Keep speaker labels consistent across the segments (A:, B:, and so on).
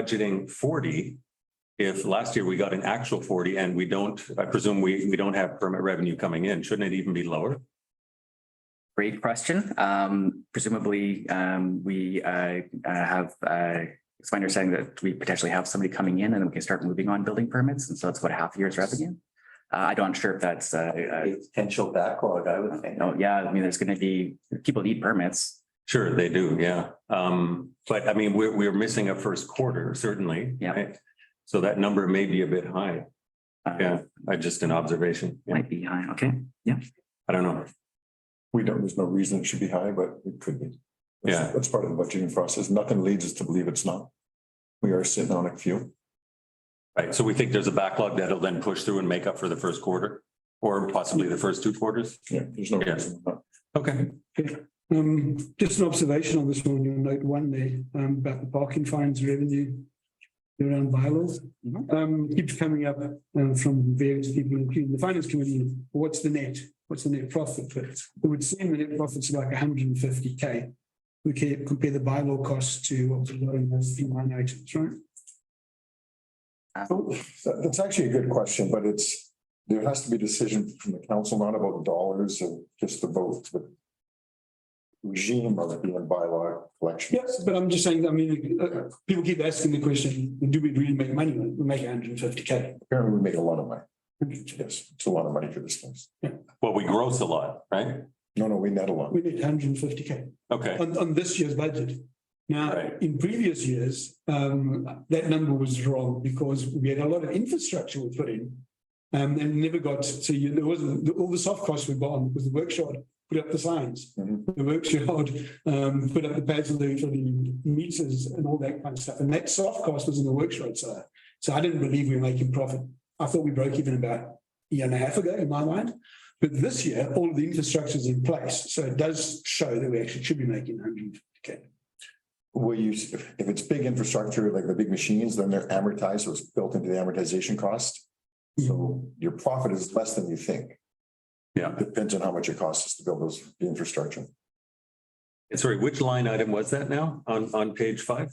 A: budgeting forty. If last year we got an actual forty and we don't, I presume we, we don't have permit revenue coming in, shouldn't it even be lower?
B: Great question. Um, presumably, um, we, uh, uh, have, uh, it's my understanding that we potentially have somebody coming in and then we can start moving on building permits. And so that's what half a year's revenue. Uh, I don't sure if that's, uh, uh,
C: Potential backlog, I would think.
B: no, yeah, I mean, there's gonna be, people need permits.
A: Sure, they do, yeah. Um, but I mean, we're, we're missing a first quarter, certainly.
B: Yeah.
A: right? So that number may be a bit high.
B: uh,
A: Yeah, I just an observation. Yeah,
B: Might be high, okay.
A: I don't know.
D: We don't, there's no reason it should be high, but it could be.
A: Yeah.
D: That's part of the budgeting process. Nothing leads us to believe it's not. We are sitting on a few.
A: Right, so we think there's a backlog that'll then push through and make up for the first quarter or possibly the first two quarters.
D: Yeah, there's no
A: Yeah.
D: reason not.
A: Okay,
E: Um, just an observation on this one, you note one there, um, about the parking fines revenue around bylaws.
B: Mhm.
E: Um, keeps coming up, um, from various people, including the finance committee, what's the net? What's the net profit? But it would seem the net profit's like hundred and fifty K. We can compare the bylaw costs to what we've got in those few line items, right?
D: That- That's actually a good question, but it's, there has to be decision from the council, not about dollars and just about the regime of the bylaw collection.
E: Yes, but I'm just saying, I mean, uh, people keep asking the question, do we really make money? We make hundred and fifty K.
D: Apparently we make a lot of money. Yes, it's a lot of money for this place.
A: well, we gross a lot, right?
D: No, no, we net a lot.
E: We make hundred and fifty K.
A: Okay,
E: on, on this year's budget. Now,
A: Right.
E: in previous years, um, that number was wrong because we had a lot of infrastructure we put in. Um, and never got, so you, there wasn't, the- all the soft costs we bought on was the workshop, put up the signs.
D: Mhm.
E: The workshop, um, put up the pads for the, for the meters and all that kind of stuff. And that soft cost was in the workshop side. So I didn't believe we were making profit. I thought we broke even about a year and a half ago in my mind. But this year, all of the infrastructure is in place, so it does show that we actually should be making hundred.
D: Will you, if if it's big infrastructure, like the big machines, then they're amortized, so it's built into the amortization cost. So
C: Mm-hmm.
D: your profit is less than you think.
A: Yeah.
D: Depends on how much it costs us to build those the infrastructure.
A: sorry, which line item was that now on, on page five?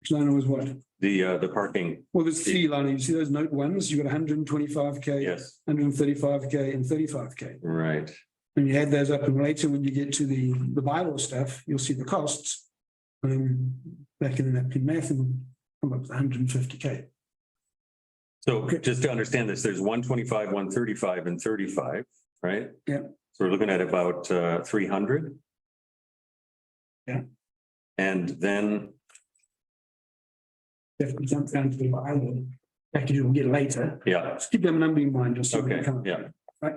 E: Which line was what?
A: The, uh, the parking,
E: Well, there's three line, you see those note ones, you've got hundred and twenty-five K,
A: yes,
E: hundred and thirty-five K and thirty-five K.
A: right.
E: And you add those up and later when you get to the, the bylaw stuff, you'll see the costs. Um, back in the napkin math and come up with hundred and fifty K.
A: So just to understand this, there's one twenty-five, one thirty-five and thirty-five, right?
E: Yeah.
A: So we're looking at about uh three hundred.
E: Yeah.
A: And then,
E: If we jump down to the bylaw, package we'll get later,
A: yeah,
E: just keep that number in mind, just so we
A: okay,
E: can come up.
A: yeah,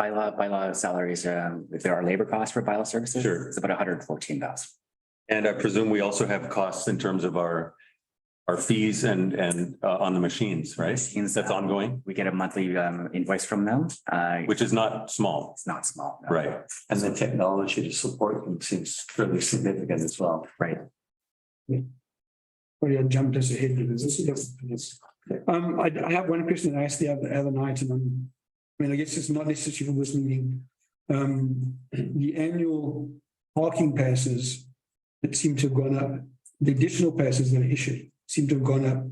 B: Bylaw, bylaw salaries, um, if there are labor costs for bylaw services.
A: Sure.
B: It's about hundred and fourteen thousand.
A: and I presume we also have costs in terms of our. Our fees and and uh on the machines, right?
B: Machines,
A: That's
B: uh,
A: ongoing,
B: We get a monthly, um, invoice from them. Uh,
A: which is not small,
B: it's not small. no.
A: right?
C: And the technology to support them seems fairly significant as well.
E: Well, you jumped us ahead because this is, yes. Um, I, I have one question I asked the other, other night and I'm, I mean, I guess it's not necessarily for this meeting. Um, the annual parking passes that seem to have gone up, the additional passes that are issued seem to have gone up.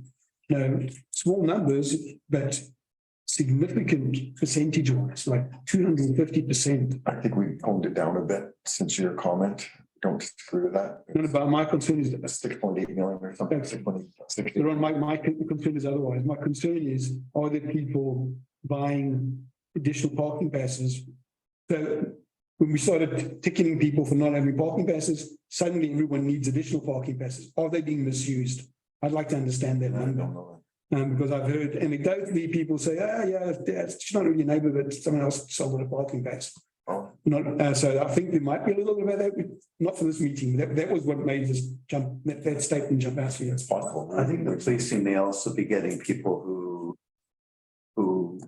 E: You know, small numbers, but significant percentage wise, like two hundred and fifty percent.
D: I think we honed it down a bit since your comment. Don't agree with that.
E: And about my concern is that
D: Six point eight million or something, six point eight, six.
E: But on my, my con- concern is otherwise. My concern is, are there people buying additional parking passes? So when we started ticketing people for not having parking passes, suddenly everyone needs additional parking passes. Are they being misused? I'd like to understand that
D: I don't
E: number,
D: know.
E: um, because I've heard anecdotally people say, ah, yeah, it's not really a neighbor, but someone else sold a parking pass.
D: Oh,
E: Not, uh, so I think there might be a little bit about that, but not for this meeting. That, that was what made this jump, that, that statement jump out to you.
D: It's possible.
C: I think the policing may also be getting people who who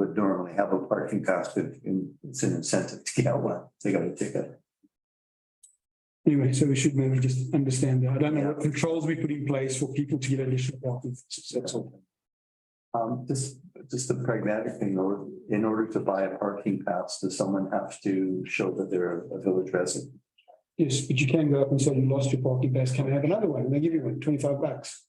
C: would normally have a parking pass if it's an incentive to get one. They got a ticket.
E: Anyway, so we should maybe just understand that. I don't know what controls we put in place for people to get additional parking. That's all.
C: Um, just, just a pragmatic thing, though, in order to buy a parking pass, does someone have to show that they're a village resident?
E: Yes, but you can go up and say you lost your parking pass, can I have another one? And they give you one, 25 bucks.